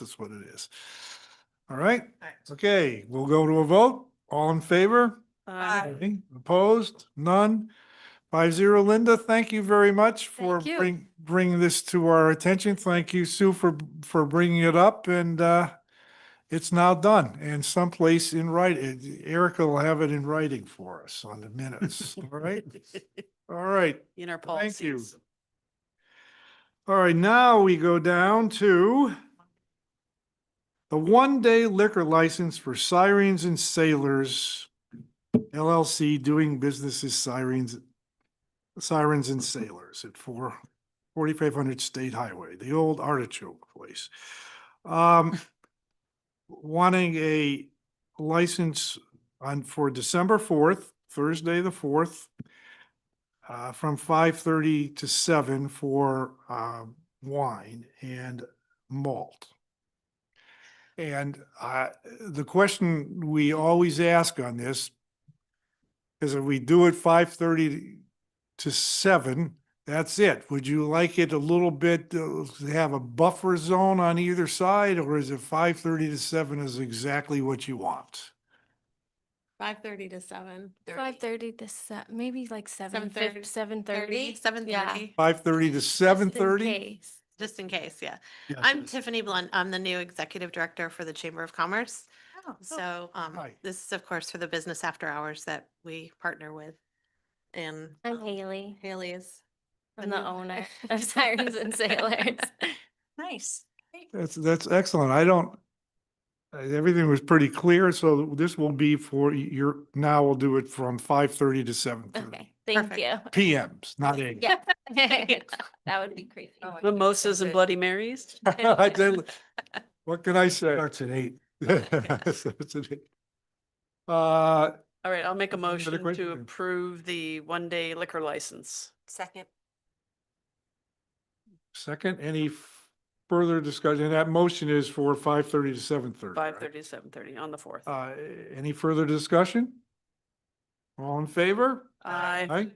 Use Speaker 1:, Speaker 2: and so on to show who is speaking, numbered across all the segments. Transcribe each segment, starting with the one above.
Speaker 1: That's what it is. All right,
Speaker 2: Alright.
Speaker 1: okay, we'll go to a vote. All in favor?
Speaker 2: Aye.
Speaker 1: Any Opposed? None? Five zero. Linda, thank you very much for
Speaker 2: Thank you.
Speaker 1: bring, bringing this to our attention. Thank you, Sue, for, for bringing it up and, uh, it's now done and someplace in writing. Erica will have it in writing for us on the minutes. All right? All right.
Speaker 2: In our
Speaker 1: Thank you.
Speaker 2: policies.
Speaker 1: All right, now we go down to the one-day liquor license for Sirens and Sailors LLC doing business as Sirens, Sirens and Sailors at four, forty-five hundred State Highway, the old artichoke place. Um, wanting a license on, for December fourth, Thursday the fourth, uh, from five thirty to seven for, uh, wine and malt. And, uh, the question we always ask on this is if we do it five thirty to seven, that's it. Would you like it a little bit, uh, to have a buffer zone on either side? Or is it five thirty to seven is exactly what you want?
Speaker 3: Five thirty to seven.
Speaker 4: Five thirty to se- maybe like seven
Speaker 3: 7:30.
Speaker 4: seven
Speaker 3: Thirty,
Speaker 4: thirty.
Speaker 3: seven thirty,
Speaker 1: Five thirty to seven thirty?
Speaker 3: just in case, yeah. I'm Tiffany Blunt. I'm the new executive director for the Chamber of Commerce.
Speaker 5: Oh,
Speaker 3: So um,
Speaker 1: Hi.
Speaker 3: this is of course for the business after hours that we partner with. And
Speaker 4: I'm Haley.
Speaker 3: Haley is.
Speaker 4: I'm the
Speaker 3: new-
Speaker 4: owner of Sirens and Sailors.
Speaker 2: Nice.
Speaker 1: That's, that's excellent. I don't, uh, everything was pretty clear, so this will be for your, now we'll do it from five thirty to seven thirty.
Speaker 4: Okay, thank
Speaker 3: Perfect.
Speaker 4: you.
Speaker 1: PMs, not AM.
Speaker 4: Yeah. That would be crazy.
Speaker 2: Mimosas and Bloody Marys?
Speaker 1: I did- What can I say? Starts at eight. Starts at eight. Uh,
Speaker 2: All right, I'll make a
Speaker 1: Any other
Speaker 2: motion
Speaker 1: question?
Speaker 2: to approve the one-day liquor license.
Speaker 3: Second.
Speaker 1: second, any f- further discussion? And That motion is for five thirty to seven thirty.
Speaker 2: Five thirty to seven thirty on the fourth.
Speaker 1: Uh, any further discussion? All in favor?
Speaker 2: Aye.
Speaker 1: Aye,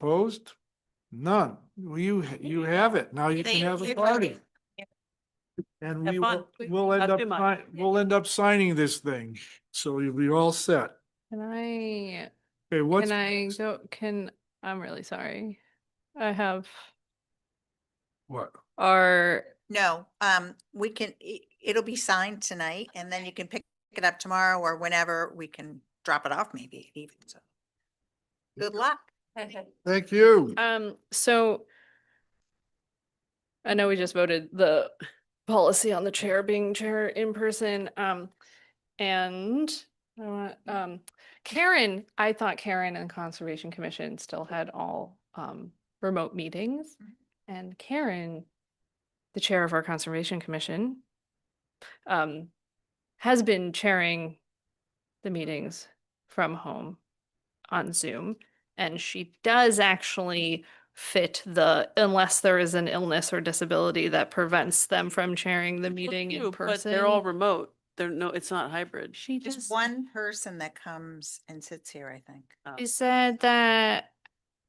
Speaker 1: opposed? None. Well, you, you have it. Now Oh, you can
Speaker 3: Thank
Speaker 1: have a
Speaker 3: you.
Speaker 1: party. And
Speaker 2: Have
Speaker 1: we
Speaker 2: fun.
Speaker 1: will, we'll end
Speaker 2: Not
Speaker 1: up,
Speaker 2: too much.
Speaker 1: sign- we'll end up signing this thing, so you'll be all set.
Speaker 6: Can I,
Speaker 1: Okay, what's?
Speaker 6: can I go, can, I'm really sorry. I have
Speaker 1: What?
Speaker 6: our,
Speaker 7: No, um, we can, i- it'll be signed tonight and then you can pick it up tomorrow or whenever we can drop it off maybe even so. Good luck.
Speaker 1: Thank you.
Speaker 6: um, so I know we just voted the policy on the chair being chair in person, um, and I want, um, Karen, I thought Karen and Conservation Commission still had all, um, remote meetings.
Speaker 4: Mm-hmm.
Speaker 7: Mhm.
Speaker 6: And Karen, the chair of our Conservation Commission, um, has been chairing the meetings from home on Zoom. And she does actually fit the, unless there is an illness or disability that prevents them from chairing the meeting in
Speaker 2: But
Speaker 6: person.
Speaker 2: they're all remote. They're no, it's not hybrid.
Speaker 6: She
Speaker 7: Just
Speaker 6: just,
Speaker 7: one person that comes and sits here, I think.
Speaker 2: Uh,
Speaker 6: she said that,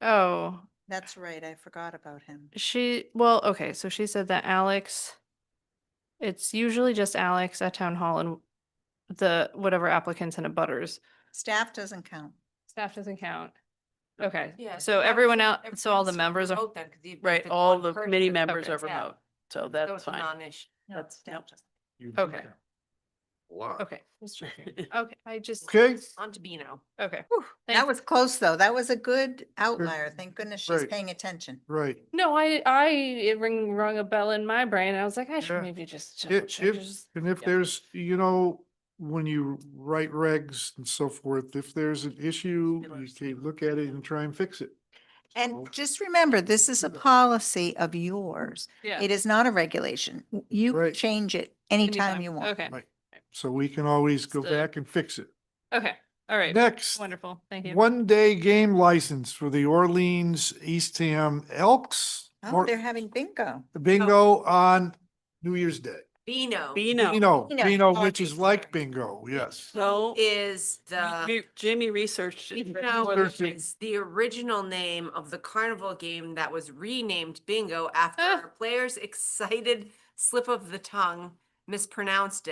Speaker 6: oh,
Speaker 7: That's right. I forgot about him.
Speaker 6: she, well, okay, so she said that Alex, it's usually just Alex at town hall and the, whatever applicants and abutters.
Speaker 7: Staff doesn't count.
Speaker 6: Staff doesn't count. Okay,
Speaker 5: Yeah,
Speaker 6: so
Speaker 5: that
Speaker 6: everyone
Speaker 5: was-
Speaker 6: out, so oh, all the
Speaker 5: everyone's
Speaker 6: members are,
Speaker 5: remote then, 'cause even if
Speaker 2: Right,
Speaker 5: it's
Speaker 2: all
Speaker 5: one
Speaker 2: the
Speaker 5: person,
Speaker 2: committee
Speaker 5: it's
Speaker 2: members
Speaker 5: okay,
Speaker 2: are
Speaker 5: yeah.
Speaker 2: remote, so
Speaker 5: So
Speaker 2: that's
Speaker 5: it's a
Speaker 2: fine.
Speaker 5: non-issue.
Speaker 7: That's.
Speaker 2: nope.
Speaker 1: You-
Speaker 6: Okay.
Speaker 1: Wow.
Speaker 6: okay, just checking. okay, I just,
Speaker 1: Okay,
Speaker 5: On to Beano.
Speaker 6: okay.
Speaker 7: That was close though. That was a good outlier. Thank goodness she's
Speaker 1: Right.
Speaker 7: paying attention.
Speaker 1: right.
Speaker 6: No, I, I, it ring, rung a bell in my brain. I was like, I
Speaker 1: Yeah.
Speaker 6: should maybe just. double
Speaker 1: If,
Speaker 6: check,
Speaker 1: if,
Speaker 6: just-
Speaker 1: and if
Speaker 6: yeah.
Speaker 1: there's, you know, when you write regs and so forth, if there's an issue, you can look at it and try and fix it.
Speaker 7: And just remember, this is a policy of yours.
Speaker 6: Yeah.
Speaker 7: It is not a regulation. You
Speaker 1: Right.
Speaker 7: change it anytime you want.
Speaker 6: Okay,
Speaker 1: Right. So we can always go
Speaker 6: So-
Speaker 1: back and fix it.
Speaker 6: okay, all right.
Speaker 1: Next,
Speaker 6: Wonderful, thank you.
Speaker 1: one-day game license for the Orleans Eastham Elks
Speaker 7: Oh,
Speaker 1: or
Speaker 7: they're having bingo.
Speaker 1: bingo on New Year's Day.
Speaker 5: Beano
Speaker 2: Beano.
Speaker 1: Bino,
Speaker 7: Bino,
Speaker 1: Bino,
Speaker 7: oh,
Speaker 1: which is
Speaker 7: geez,
Speaker 1: like
Speaker 7: sorry.
Speaker 1: bingo, yes.
Speaker 2: No,
Speaker 5: is the,
Speaker 2: we- Jamie researched. it
Speaker 5: Beano
Speaker 2: before this meeting.
Speaker 5: is the original name of the carnival game that was renamed Bingo after
Speaker 6: Ah.
Speaker 5: our players' excited slip of the tongue
Speaker 3: mispronounced it.